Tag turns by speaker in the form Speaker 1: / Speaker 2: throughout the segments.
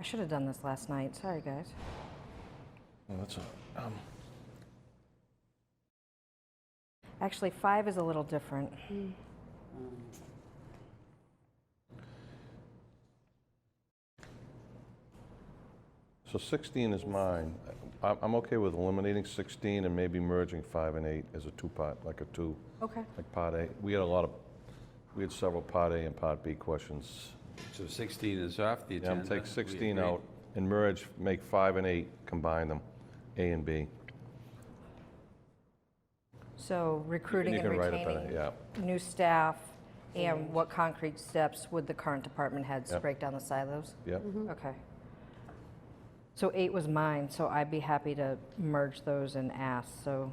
Speaker 1: I should have done this last night. Sorry, guys.
Speaker 2: Well, that's a, um,
Speaker 1: Actually, five is a little different.
Speaker 2: so 16 is mine. I- I'm okay with eliminating 16 and maybe merging 5 and 8 as a two-part, like a two,
Speaker 1: Okay.
Speaker 2: like Part A. We had a lot of, we had several Part A and Part B questions.
Speaker 3: So 16 is off the
Speaker 2: Yeah,
Speaker 3: agenda?
Speaker 2: I'll take
Speaker 3: We
Speaker 2: 16
Speaker 3: agree.
Speaker 2: out and merge, make 5 and 8, combine them, A and B.
Speaker 1: So recruiting
Speaker 2: You
Speaker 1: and
Speaker 2: can write it better,
Speaker 1: retaining
Speaker 2: yeah.
Speaker 1: new staff and what concrete steps would the current department heads to
Speaker 2: Yep.
Speaker 1: break down the silos?
Speaker 2: Yep,
Speaker 1: Okay. So eight was mine, so I'd be happy to merge those and ask, so,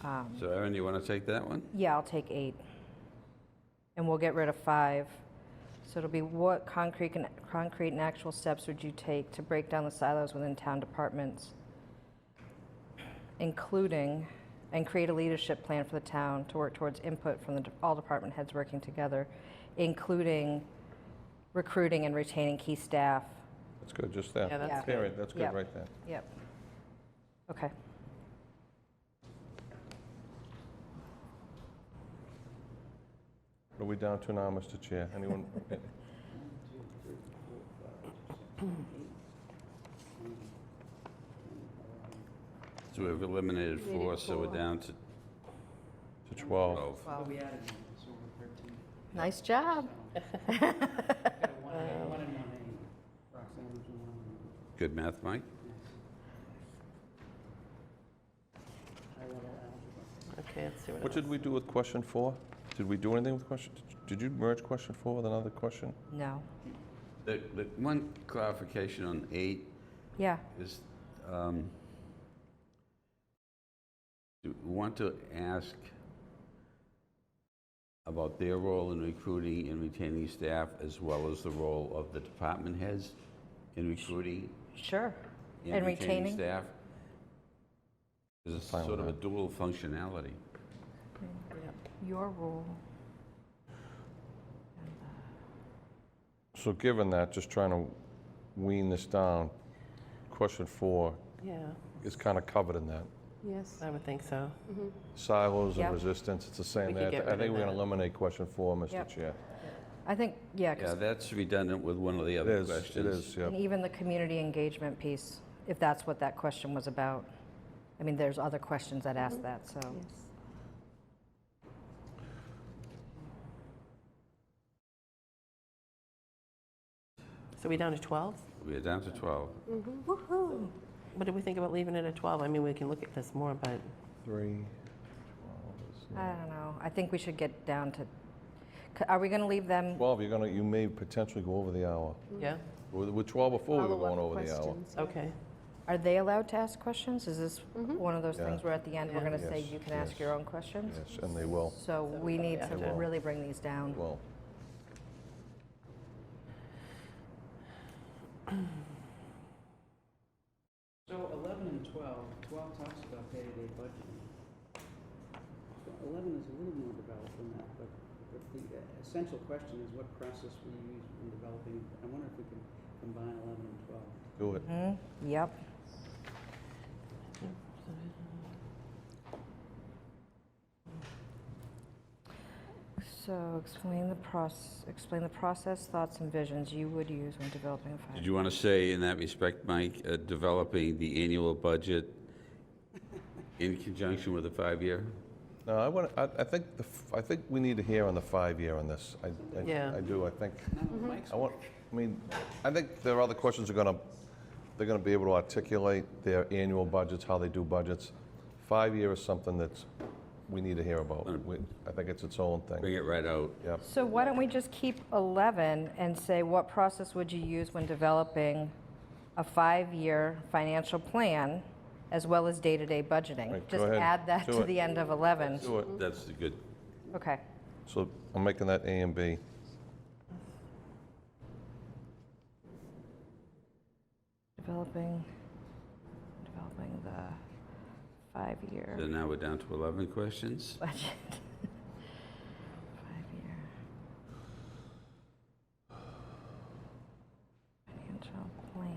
Speaker 1: um,
Speaker 3: So Erin, you want to take that one?
Speaker 1: yeah, I'll take eight. And we'll get rid of five. So it'll be what concrete and, concrete and actual steps would you take to break down the silos within town departments? Including, and create a leadership plan for the town to work towards input from the, de- all department heads working together, including recruiting and retaining key staff,
Speaker 2: that's good, just that.
Speaker 4: Yeah, that's
Speaker 2: Yeah, right, that's
Speaker 1: Yeah.
Speaker 2: good, right there.
Speaker 1: Yep. Okay.
Speaker 2: What are we down to now, Mr. Chair? Anyone?
Speaker 3: So we've eliminated four, so we're down to
Speaker 2: To 12.
Speaker 3: 12.
Speaker 4: Wow.
Speaker 5: We added one, so we're thirteen.
Speaker 1: Nice job.
Speaker 5: Got a one A, one and one A. Roxanne was the one.
Speaker 3: Good math, Mike?
Speaker 5: and I wrote algebra.
Speaker 4: Okay, let's see what
Speaker 2: What
Speaker 4: else.
Speaker 2: did we do with question four? Did we do anything with question, did you merge question four with another question?
Speaker 1: No.
Speaker 3: The- the One clarification on eight
Speaker 1: Yeah.
Speaker 3: is, um, do we want to ask about their role in recruiting and retaining staff, as well as the role of the department heads in recruiting
Speaker 1: Sure.
Speaker 3: and retaining
Speaker 1: retaining?
Speaker 3: staff? 'Cause It's
Speaker 2: Fine with
Speaker 3: sort of a
Speaker 2: that.
Speaker 3: dual functionality.
Speaker 1: Your role.
Speaker 2: So given that, just trying to wean this down, question four
Speaker 4: Yeah,
Speaker 2: is kind of covered in that.
Speaker 6: Yes.
Speaker 4: I would think so.
Speaker 2: Silos
Speaker 1: Yeah.
Speaker 2: and resistance, it's the same
Speaker 4: We could
Speaker 2: there. I
Speaker 4: get
Speaker 2: think
Speaker 4: rid
Speaker 2: we're
Speaker 4: of
Speaker 2: going to
Speaker 4: that.
Speaker 2: eliminate question four, Mr.
Speaker 1: Yep.
Speaker 2: Chair.
Speaker 1: I think, yeah, 'cause-
Speaker 3: Yeah, that's redundant with one of the
Speaker 2: It
Speaker 3: other
Speaker 2: is,
Speaker 3: questions.
Speaker 2: it is, yeah.
Speaker 1: and even the community engagement piece, if that's what that question was about. I mean, there's other questions that ask that, so.
Speaker 6: Yes.
Speaker 4: So we down to 12?
Speaker 3: We're down to 12.
Speaker 1: Woohoo.
Speaker 4: What do we think about leaving it at 12? I mean, we can look at this more, but
Speaker 2: Three.
Speaker 1: I don't know. I think we should get down to, c- are we going to leave them?
Speaker 2: 12, you're going to, you may potentially go over the hour.
Speaker 4: yeah,
Speaker 2: With with 12 before, we were going
Speaker 6: Follow-up
Speaker 2: over the hour.
Speaker 6: questions, yeah.
Speaker 4: okay.
Speaker 1: Are they allowed to ask questions? Is this one of those
Speaker 2: Yeah.
Speaker 1: things where at the end, we're
Speaker 4: Yeah.
Speaker 1: going to say,
Speaker 2: Yes,
Speaker 1: you can ask
Speaker 2: yes,
Speaker 1: your own questions?
Speaker 2: Yes, and they will,
Speaker 1: So we need
Speaker 4: yeah.
Speaker 1: to
Speaker 2: Well-
Speaker 1: really bring these down.
Speaker 2: well.
Speaker 5: So eleven and twelve, twelve talks about day-to-day budgeting. So Eleven is a little more developed than that, but, but the uh, essential question is what process we use in developing. I wonder if we can combine eleven and twelve.
Speaker 2: Do it.
Speaker 1: Mhm. Yep. So explain the process, explain the process, thoughts, and visions you would use when developing a
Speaker 3: Did
Speaker 1: five.
Speaker 3: you want to say in that respect, Mike, uh, developing the annual budget in conjunction with a five-year?
Speaker 2: No, I want, I, I think, the f- I think we need to hear on the five-year on this. I, I-
Speaker 4: Yeah.
Speaker 2: I do, I think.
Speaker 5: None of Mike's
Speaker 2: I want, I mean, I think there are other questions are gonna, they're gonna be able to articulate their annual budgets, how they do budgets. Five-year is something that's, we need to hear about. We- I think it's its own thing.
Speaker 3: Bring it right out.
Speaker 2: Yep,
Speaker 1: So why don't we just keep 11 and say, what process would you use when developing a five-year financial plan as well as day-to-day budgeting?
Speaker 2: Right, go
Speaker 1: Just
Speaker 2: ahead.
Speaker 1: add that
Speaker 2: Do
Speaker 1: to
Speaker 2: it.
Speaker 1: the end of 11.
Speaker 2: do it.
Speaker 3: That's the good.
Speaker 1: Okay.
Speaker 2: So I'm making that A and B.
Speaker 1: Developing, developing the five-year.
Speaker 3: So now we're down to 11 questions.
Speaker 1: budget.